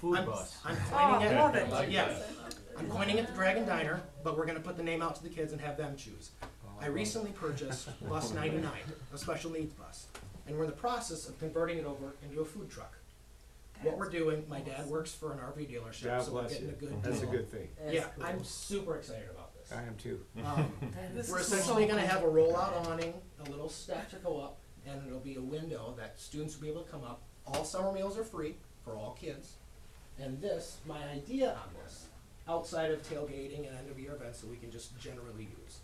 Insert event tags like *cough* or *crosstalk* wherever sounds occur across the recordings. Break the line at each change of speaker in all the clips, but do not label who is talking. food
I'm,
bus.
I'm
Oh,
pointing
I
at
love it.
yeah, I'm pointing at the Dragon Diner, but we're gonna put the name out to the kids and have them choose. I recently
*laughs*
purchased bus ninety-nine, a special needs bus, and we're in the process of converting it over into a food truck. What we're doing, my dad works for an RV dealership,
God
so we're
bless
getting a
you.
good
That's a
deal.
good thing.
Yeah, I'm super excited about this.
I am too. *laughs*
Um,
This
We're
is so
essentially gonna
cool.
have a rollout awning, a little step to go up, and it'll be a window that students will be able to come up. All summer meals are free for all kids. And this, my idea on this, outside of tailgating and end of year events that we can just generally use.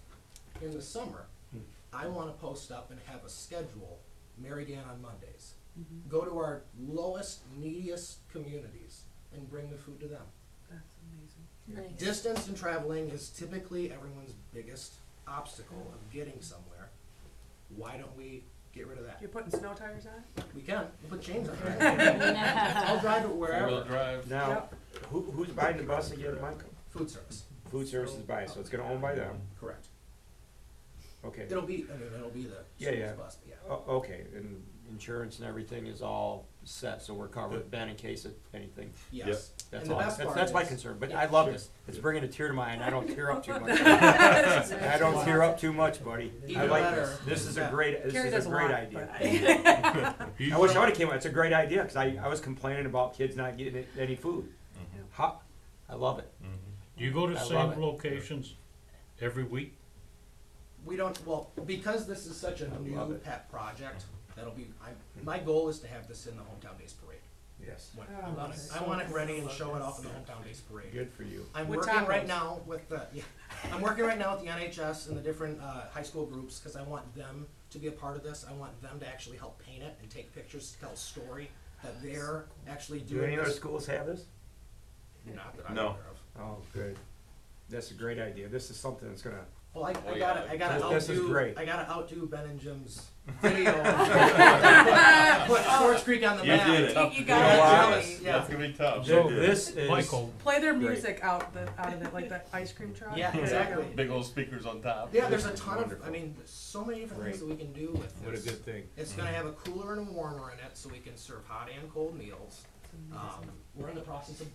In the summer,
Hmm.
I wanna post up and have a schedule, Mary Dan on Mondays.
Mm-hmm.
Go to our lowest, neediest communities and bring the food to them. Distance and traveling is typically everyone's biggest obstacle of getting somewhere. Why don't we get rid of that?
You're putting snow tires on? it?
We can, we'll put chains on it. *laughs* I'll drive it
Four-wheel
wherever.
drive.
Now,
Yep.
who, who's buying the bus again, Michael?
Food service,
Food services buys, so it's gonna own by them,
correct.
okay.
It'll be, I mean, it'll be the
Yeah, yeah.
service bus, but yeah.
O- Oh, okay, and insurance and everything is all set, so we're covered, Ben, in case of anything,
Yes.
that's
And the
all,
best
that's,
part
that's my
is-
concern, but
Yeah.
I love
Sure.
this, it's bringing a tear to my eye, and I don't tear
*laughs*
up too much.
This is-
I don't tear up too much, buddy, I
Either
like
that
this,
or-
this is a
Yeah.
great, this
Carrie
is
does
a
a
great
lot,
idea.
but I-
I wish I would've came, it's a great idea, cause I, I was complaining about kids not getting any food. Ha, I love it.
Do you go to
I
the
love it.
same locations every week?
We don't, well, because this is such a
love
new
it.
pet project, that'll be, I, my goal is to have this in the Hometown Days Parade.
Yes.
When-
Oh,
I want it- I want it ready and show it off in the Hometown Days Parade.
Good for you.
I'm
With
working right
tacos.
now with the yeah, I'm working right now with the NHS and the different uh, high school groups because I want them to be a part of this. I want them to actually help paint it and take pictures to tell a story that they're actually
Do
doing
any other
this.
schools have this?
Not that I'm
No.
aware of.
Oh, good. That's a great idea. This is something that's gonna,
Well, I,
Oh,
I
yeah.
gotta, I gotta
This-
outdo,
this is great.
I gotta outdo Ben and
*laughs*
Jim's video. put Swords Creek on the
You
map.
did it.
You
got
got
it.
it.
That's gonna be tough.
so
They did.
this is.
Michael,
*laughs* Play their music out the, out of it, like the ice cream truck.
Yeah,
There you
exactly.
Big old speakers on top.
Yeah, there's a
This is
ton of. I
wonderful.
mean, there's so many different things that
Great.
we can do with this.
What a good thing.
It's gonna have a cooler and a warmer in it, so we can serve hot and cold meals. Um, we're in the process of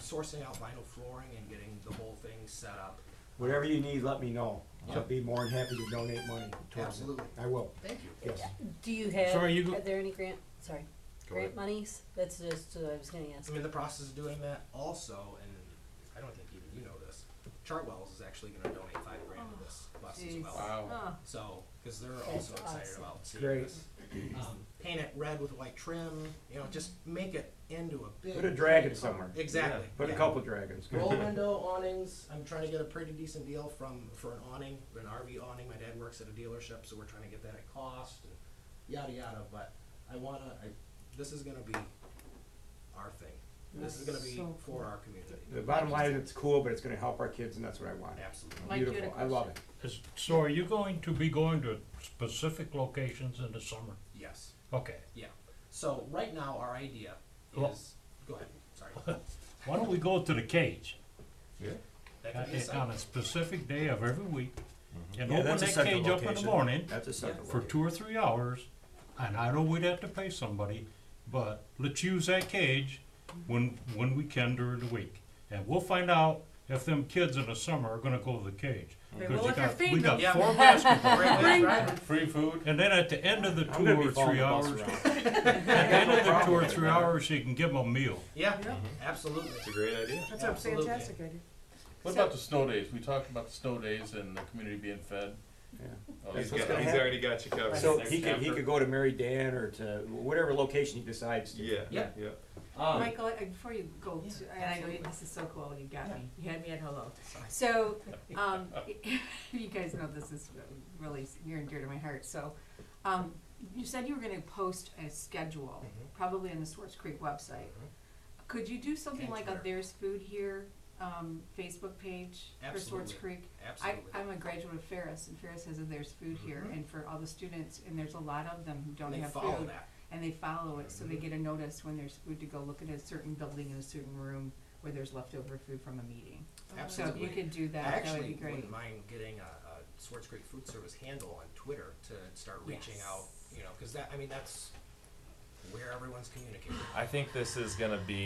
sourcing out vinyl flooring and getting the whole thing set up.
Whatever you need, let me know. I'll
Yep.
be more than happy to donate money towards it.
Absolutely.
I will,
Thank you.
yes.
Do you have,
Sorry, you go-
are there any grant, sorry,
Go
grant monies? That's just, what I was gonna ask.
I'm in the process of doing that also, and I don't think even you know this, Chartwell's is actually gonna donate five grand to this bus as
Jeez.
well.
Wow.
Oh,
So, cause they're also
That's
excited
awesome.
about seeing
Great.
this. Um, paint it red with white trim, you know, just make it into a big.
Put a dragon somewhere.
Exactly.
Put a
yeah.
couple dragons. *laughs*
Roll window awnings, I'm trying to get a pretty decent deal from, for an awning, an RV awning, my dad works at a dealership, so we're trying to get that at cost, and yada yada, but I wanna, I, this is gonna be our thing. This is gonna be
So
for our community,
The bottom line is it's cool, but it's gonna help our kids and that's what I want.
absolutely.
Mike, you had a
Beautiful. I love it.
is, so are you going to be going to specific locations in the summer?
Yes,
Okay,
yeah, so right now, our idea
Well-
is, go ahead,
*laughs*
sorry.
why don't we go to the cage?
That
on
could be a
a-
site.
On a specific day of every week, and
Mm-hmm. Yeah,
open
that's a
that
central
cage up in the
location.
morning
That's a second
for
location.
two or three hours, and I know we'd have to pay somebody, but let's use that cage when, when we can during the week. And we'll find out if them kids in the summer are gonna go to the cage.
They
'Cause you
will if you're
got- We
feeding
got
them.
*laughs*
four *laughs* basketball.
Great way to drive it.
Free food.
And then at the end of the
I'm
two
gonna be
or
following
three
the bus
hours,
around.
at the end of the two or
Problem.
three hours, you can give them a meal.
Yeah, absolutely,
It's a great idea.
That's a
Absolutely.
fantastic idea.
What about the snow days? We talked about the snow days and the community being fed.
Yeah.
Oh,
That's
these
what's
guys-
gonna
He's
happen.
already got you covered.
So he could, he could go to Mary Dan or to whatever location he decides to.
Yeah, yeah.
Yeah.
Um,
Michael, uh, before you go,
Yeah,
to- and I know you- this is so cool, you got me, you had me at hello.
Sorry. *laughs*
So, um, *laughs* you guys know this is really s- near and dear to my heart, so, um, you said you were gonna post a schedule,
Mhm.
probably on the Swartz Creek website.
Mm-hmm.
Could you do something
And
like a
Twitter.
There's Food Here, um, Facebook page for Swartz
Absolutely.
Creek? I,
absolutely.
I'm a graduate of Ferris, and Ferris has a There's Food Here,
Mhm.
and for all the students, and there's a lot of them who don't
They
have food
follow that,
and they follow it, so they
Mhm.
get a notice when there's food to go look at a certain building in a certain room where there's leftover food from a meeting. So if
absolutely.
you could do
I
that, that would
actually
be great.
wouldn't mind getting a, a Swartz Creek Food Service handle on Twitter to start reaching
Yes.
out, you know, because that, I mean, that's where everyone's communicating.
I think this is gonna be